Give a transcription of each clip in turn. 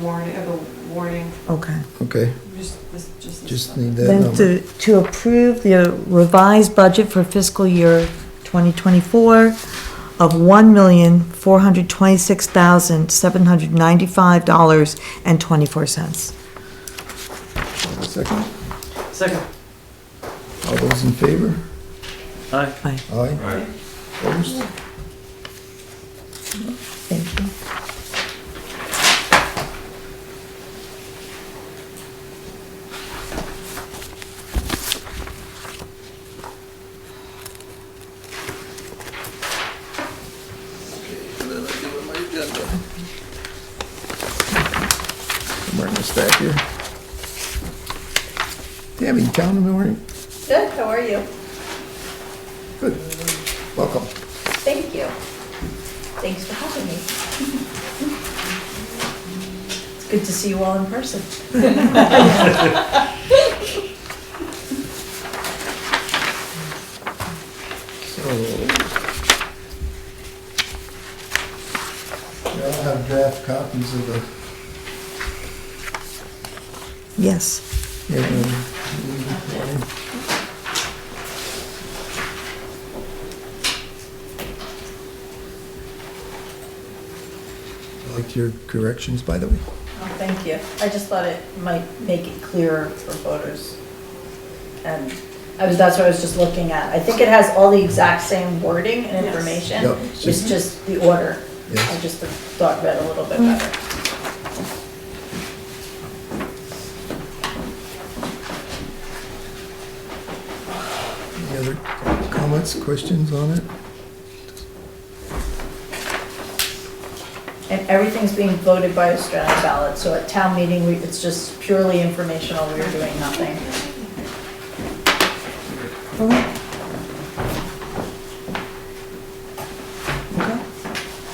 warning, of a warning, Okay. Okay, just this, just this. just stuff. need that Then number. to, to approve the uh, revised budget for fiscal year 2024 of $1,426,795.24. Second, Second. all those in favor? Aye. Aye, Aye. Aye. Opposed? thank you. Somewhere in the stack here. Tammy, you down in the morning? Good, how are you? Good. Welcome. Thank you. Thanks for having me. It's good to see you all in person. So. We all have draft copies of the Yes, Yeah, um, I liked your corrections, by the way. Oh, thank you. I just thought it might make it clearer for voters. And I was, that's what I was just looking at. I think it has all the exact same wording and Yes. information. Yep. It's just the order. Yes. I just thought read a little bit better. Any other comments, questions on it? And everything's being voted by Australian ballot, so at town meeting, we- it's just purely informational. We're doing nothing.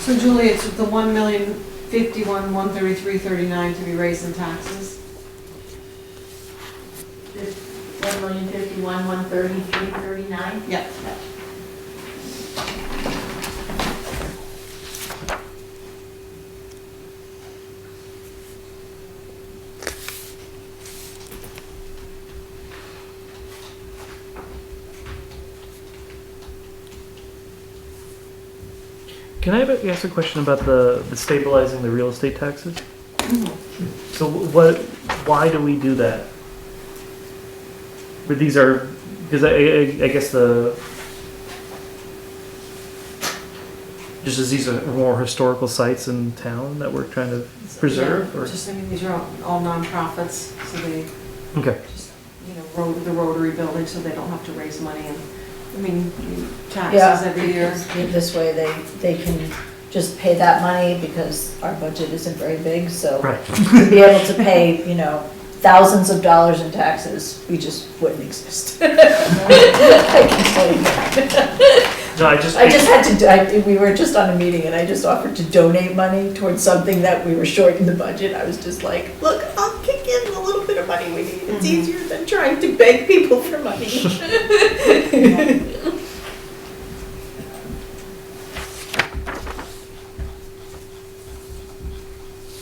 So Julie, it's the one million fifty-one, one thirty-three, thirty-nine to be raised in taxes? One million fifty-one, one thirty-three, thirty-nine? Yep. Can I ab- ask a question about the, the stabilizing the real estate taxes? So wh- what, why do we do that? But these are, because I, I, I guess the, just as these are more historical sites in town that we're trying to preserve or? Just thinking, these are all- all nonprofits, so they Okay, just, you know, rot- the Rotary Building, so they don't have to raise money and, I mean, Yeah. taxes every year. This way, they, they can just pay that money because our budget isn't very big, so right. to be able to pay, you know, thousands of dollars in taxes, we just wouldn't exist. I can tell you that. No, I just, I just had to, do- I- we were just on a meeting and I just offered to donate money towards something that we were short in the budget. I was just like, look, I'll kick in the little bit of money we need. It's easier than trying to beg people for money.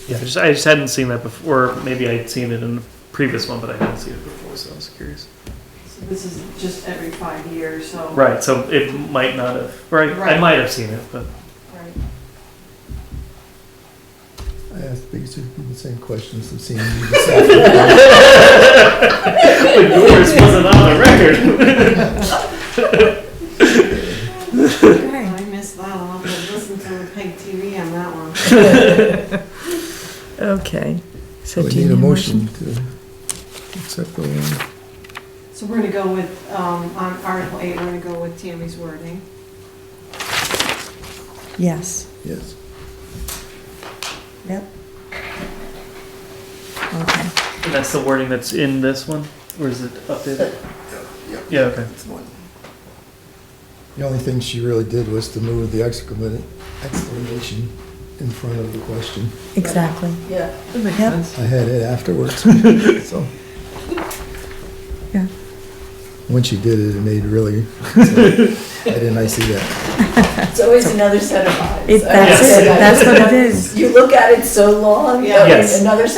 yeah, I just, I just hadn't seen that before, or maybe I'd seen it in the previous one, but I hadn't seen it before, so I was curious. So This is just every five years, so. Right, so it might not have, or I, I Right. might have seen it, but. Right. I asked basically the same questions I've seen you this afternoon. But yours wasn't on the record. I missed that, I'll have to listen to the Peg TV on that one. okay. So So we do you need a motion to accept the one. So we're gonna go with, um, on Article eight, we're gonna go with Tammy's wording. Yes, Yes. yep. Okay, And that's the wording that's in this one, or is it updated? Yep. Yeah, okay. The only thing she really did was to move the exclamation exclamation in front of the question. exactly. Yeah. That makes Yep. sense. I had it afterwards, so. Yeah. All when she did it, it made really, I didn't, I see that. It's always another set of eyes. It, I that's would say it, that. that's what it is. You look at it so long, that Yes. another set